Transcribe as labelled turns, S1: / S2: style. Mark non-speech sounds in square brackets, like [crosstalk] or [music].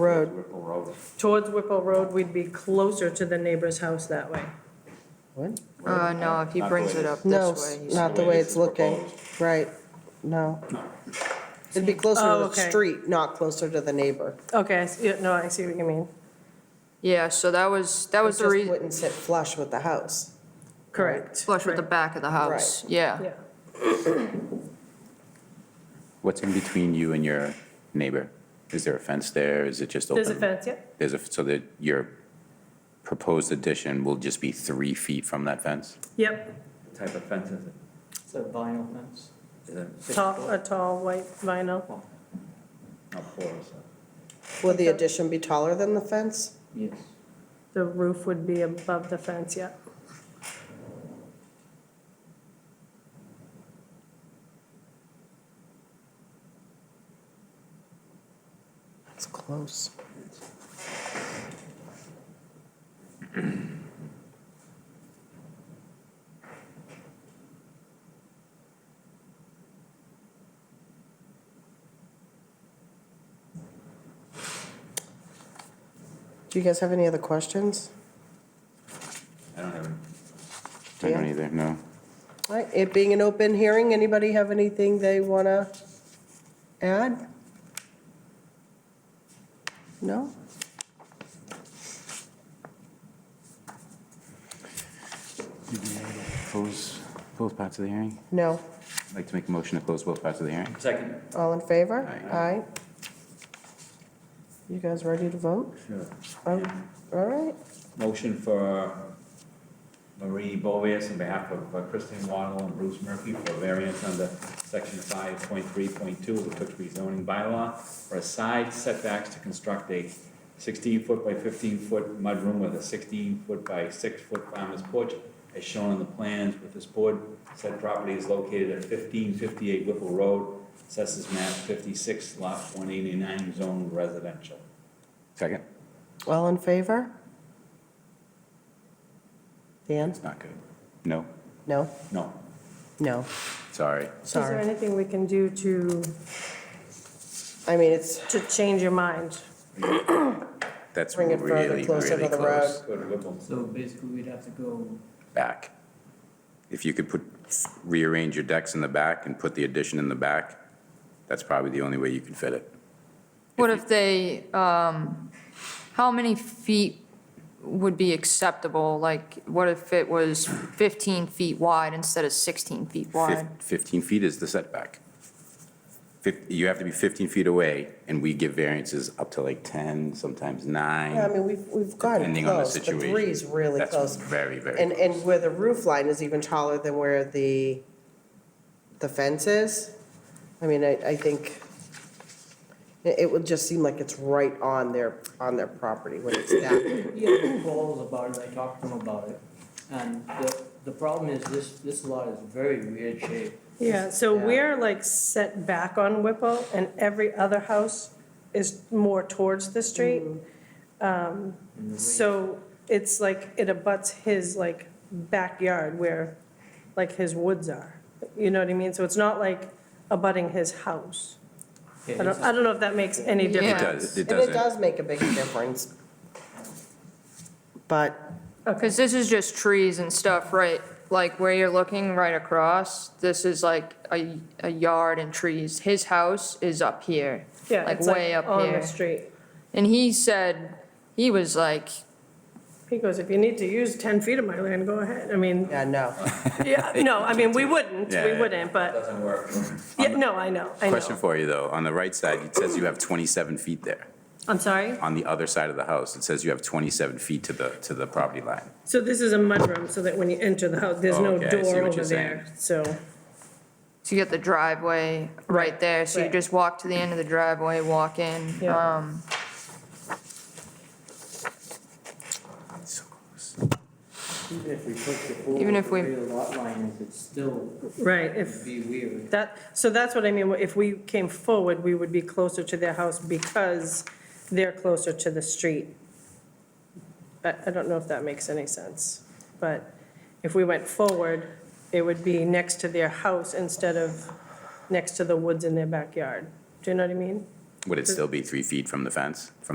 S1: Road.
S2: Whipple Road.
S1: Towards Whipple Road, we'd be closer to the neighbor's house that way.
S3: Uh, no, if he
S2: Not the
S3: brings
S2: way
S3: it
S2: this-
S3: up
S4: No,
S3: this way. he's-
S4: not the way it's looking, right, no. It'd be closer
S1: Oh,
S4: to the
S1: okay.
S4: street, not closer to the neighbor.
S1: Okay, I see, yeah, no, I see what you mean.
S3: Yeah, so that was, that was
S4: It
S3: the
S4: just
S3: reason,
S4: wouldn't sit flush with the house.
S1: Correct.
S3: flush with the
S1: Right.
S3: back of the house, yeah.
S1: Yeah.
S5: What's in between you and your neighbor? Is there a fence there? Is it just open?
S1: There's a fence, yeah?
S5: There's a, so that your proposed addition will just be three feet from that fence?
S1: Yep,
S2: What Type of fence is it?
S6: It's a vinyl fence.
S2: Is it six
S1: tall,
S2: foot?
S1: a tall white vinyl.
S2: Not four, so.
S4: Will the addition be taller than the fence?
S6: Yes.
S1: The roof would be above the fence, yeah.
S4: That's close. Do you guys have any other questions?
S2: I don't have it.
S5: I don't
S4: Yeah.
S5: either, no.
S4: All right, it being an open hearing, anybody have anything they want to add? No?
S5: Close both parts of the hearing?
S4: No.
S5: I'd like to make a motion to close both parts of the hearing.
S2: Second.
S4: All in favor?
S5: Aye.
S4: Aye. You guys ready to vote?
S2: Sure.
S4: Oh, All right.
S2: Motion for Marie Bovias on behalf of uh, Kristen Waddle and Bruce Murphy for variance under section five point three point two of the Tewksbury zoning bylaw for a side setbacks to construct a sixteen-foot by fifteen-foot mudroom with a sixteen-foot by six-foot farmer's porch as shown on the plans with this board. Said property is located at fifteen fifty-eight Whipple Road, Assessors map fifty-six, lot one eighty-nine, zone residential.
S5: Second?
S4: All in favor? Dan?
S5: It's not good. No?
S4: No?
S2: No,
S4: No,
S5: Sorry.
S1: Is there
S4: sorry.
S1: anything we can do to,
S4: I mean, it's,
S1: to change your mind?
S5: That's
S4: Bring it further
S5: really,
S4: closer
S5: really
S4: to the
S5: close.
S2: go to Whipple.
S6: So basically, we'd have to go,
S5: Back. If you could put, rearrange your decks in the back and put the addition in the back, that's probably the only way you can fit it.
S3: What if they, um, how many feet would be acceptable? Like, what if it was 15 feet wide instead of 16 feet wide?
S5: Fif- 15 feet is the setback. Fif- You have to be 15 feet away, and we give variances up to like 10, sometimes
S4: yeah, I
S5: nine.
S4: mean, we've, we've gotten
S5: Depending on the
S4: close. The
S5: situation.
S4: three's really
S5: That's
S4: close.
S5: very, very
S4: And,
S5: close.
S4: and where the roof line is even taller than where the, the fence is. I mean, I, I think it, it would just seem like it's right on their, on their property when it's that.
S6: yeah, calls about it, I talked to them about it. And the, the problem is this, this lot is very weird shape.
S1: Yeah, so
S4: Yeah.
S1: we're like set back on Whipple and every other house is more towards the street.
S5: Mm-hmm.
S1: Um,
S6: and the way-
S1: So it's like, it abuts his like backyard where like his woods are. You know what I mean? So it's not like abutting his house.
S6: Yeah,
S1: I
S6: it's
S1: don't, I don't know if that makes any
S3: Yeah.
S5: It
S1: difference.
S5: does, it
S4: And it
S5: doesn't.
S4: does make a big difference. But,
S3: Because this is just trees and stuff, right? Like where you're looking right across, this is like a, a yard and trees. His house is up here.
S1: Yeah,
S3: Like
S1: it's
S3: way up
S1: On the
S3: here.
S1: street.
S3: And he said, he was like,
S1: He goes, if you need to use 10 feet of my land, go ahead. I mean,
S5: [laughs]
S4: yeah, no.
S1: yeah, no, I mean, we wouldn't,
S5: Yeah,
S1: we
S5: yeah.
S1: wouldn't, but,
S2: Doesn't work.
S1: yeah, no, I know, I
S5: Question
S1: know.
S5: for you, though. On the right side, it says you have 27 feet there.
S1: I'm sorry?
S5: On the other side of the house, it says you have 27 feet to the, to the property line.
S1: So this is a mudroom, so that when you enter the house, there's no
S5: Okay, I see what
S1: door
S5: you're
S1: over
S5: saying.
S1: there, so.
S3: so you got the driveway right there. So you
S1: right.
S3: just walk to the end of the driveway, walk in.
S1: Yeah.
S3: Um,
S5: So close.
S6: Even if we took the full,
S3: Even if we-
S6: rear lot line, it's still,
S1: Right,
S6: it'd
S1: if,
S6: be weird.
S1: that, so that's what I mean, if we came forward, we would be closer to their house because they're closer to the street. I, I don't know if that makes any sense, but if we went forward, it would be next to their house instead of next to the woods in their backyard. Do you know what I mean?
S5: Would it still be three feet from the fence, from